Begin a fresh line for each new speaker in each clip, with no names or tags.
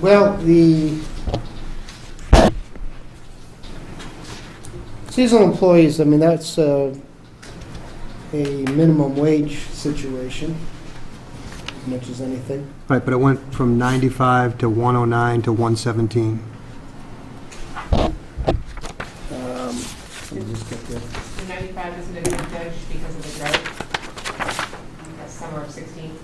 Well, the seasonal employees, I mean, that's uh, a minimum wage situation, as much as anything.
Right, but it went from 95 to 109 to 117.
Um, Let me just get the
The 95 isn't a good judge because of the drought. That's summer of 16.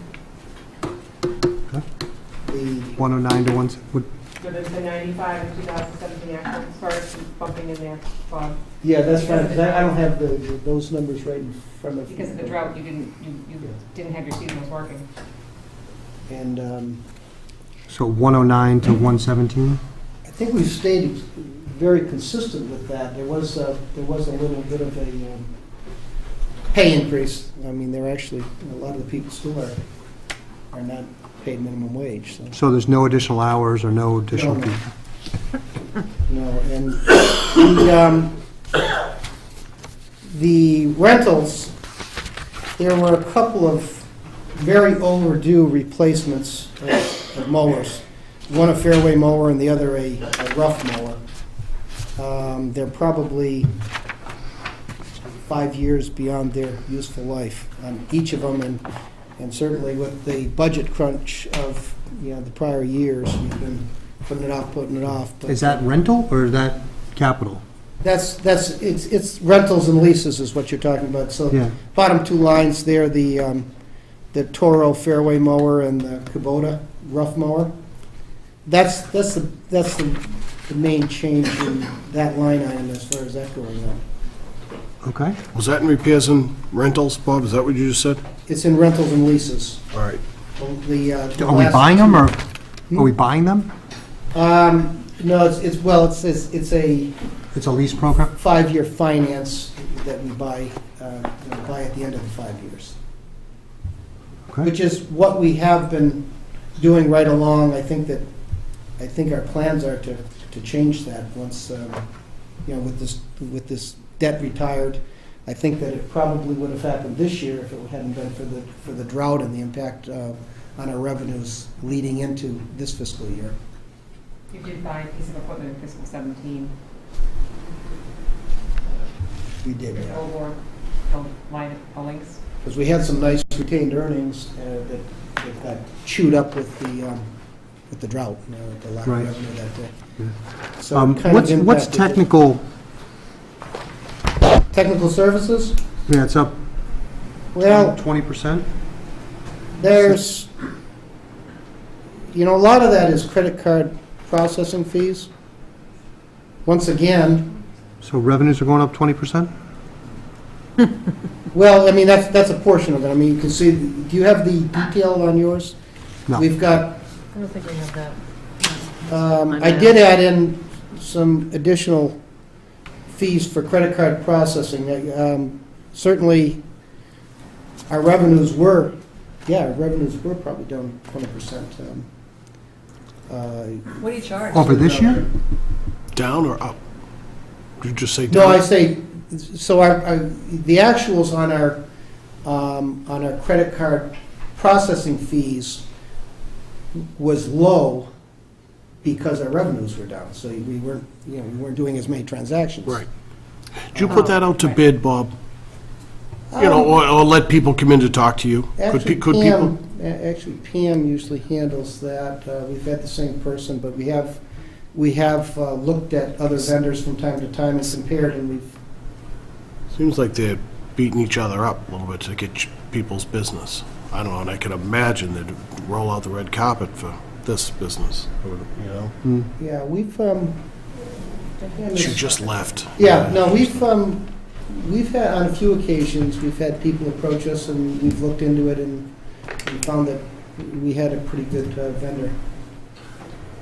the
109 to 1, would-
So there's the 95 and 2017 actual starts bumping in there, Bob.
Yeah, that's fine, 'cause I I don't have the, those numbers right in front of me.
Because of the drought, you didn't, you, you didn't have your seasonals working.
And um,
so 109 to 117?
I think we've stayed very consistent with that. There was, a- there was a little bit of a um, pay increase. I mean, there actually, a lot of the people still are, are not paid minimum wage, so,
So there's no additional hours or no additional
No.
people?
no. And the, um, the rentals, there were a couple of very overdue replacements of of mowers. One a fairway mower and the other a a rough mower. Um, They're probably five years beyond their useful life on each of them, and, and certainly with the budget crunch of, you know, the prior years, we've been putting it off, putting it off. but-
Is that rental or is that capital?
That's, that's, it's it's rentals and leases is what you're talking about, so
Yeah,
bottom two lines there, the, um, the Toro fairway mower and the Kubota rough mower. That's, that's the, that's the, the main change in that line item as far as that going on.
okay.
Was that in repairs and rentals, Bob? Is that what you just said?
It's in rentals and leases.
All right.
The, uh, the
Are we
last-
buying them or are we buying them?
Um, no, it's, it's, well, it's, it's, it's a
It's a lease program?
five-year finance that we buy, uh, you know, buy at the end of the five years.
Okay.
which is what we have been doing right along. I think that, I think our plans are to, to change that once, um, you know, with this, with this debt retired. I think that it probably would have happened this year if it hadn't been for the, for the drought and the impact uh, on our revenues leading into this fiscal year.
You did buy a piece of equipment in fiscal 17,
We did,
the old one, the line of links.
Because we had some nice retained earnings uh, that that got chewed up with the, um, with the drought, you know, the lack of
Right.
revenue that day. So it
Um,
uh, kind of
What's, what's
impacted it.
technical,
Technical services?
yeah, it's up
Well,
20%?
there's, you know, a lot of that is credit card processing fees. Once again,
So revenues are going up 20%?
well, I mean, that's, that's a portion of it. I mean, you can see, do you have the detail on yours?
No.
We've got,
I don't think we have that.
um,
I
I did add in some additional fees for credit card processing. Uh, um, Certainly, our revenues were, yeah, our revenues were probably down 20%. um, uh,
What do you charge?
Over this year?
Down or up? Did you just say
No,
down?
I say, so our, our- the actuals on our, um, on our credit card processing fees was low because our revenues were down, so we weren't, you know, we weren't doing as many transactions.
Right. Did you put that out
Uh-huh.
to bid, Bob? You know,
Um,
or, or let people come in to talk to you? Could,
Actually,
pe- could
Pam,
people?
a- actually Pam usually handles that. Uh, We've had the same person, but we have, we have uh, looked at other vendors from time to time and compared, and we've
Seems like they're beating each other up a little bit to get ch- people's business. I don't know, and I could imagine they'd roll out the red carpet for this business, or, you know?
Mm.
Yeah, we've, um.
She just left.
Yeah, no, we've, um, we've had, on a few occasions, we've had people approach us and we've looked into it and we found that we had a pretty good uh, vendor.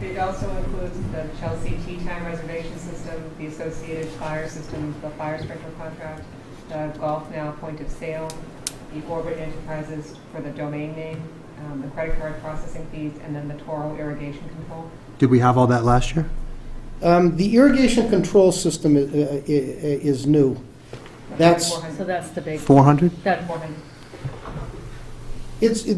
It also includes the Chelsea Tea Time Reservation System, the Associated Fire System, the Fire Sprinkler Contract, the Golf Now Point of Sale, the Orbit Enterprises for the domain name, um, the credit card processing fees, and then the Toro Irrigation Control.
Did we have all that last year?
Um, the irrigation control system i- i- i- is new. That's-
So that's the big,
400?
that
Four hundred.
It's,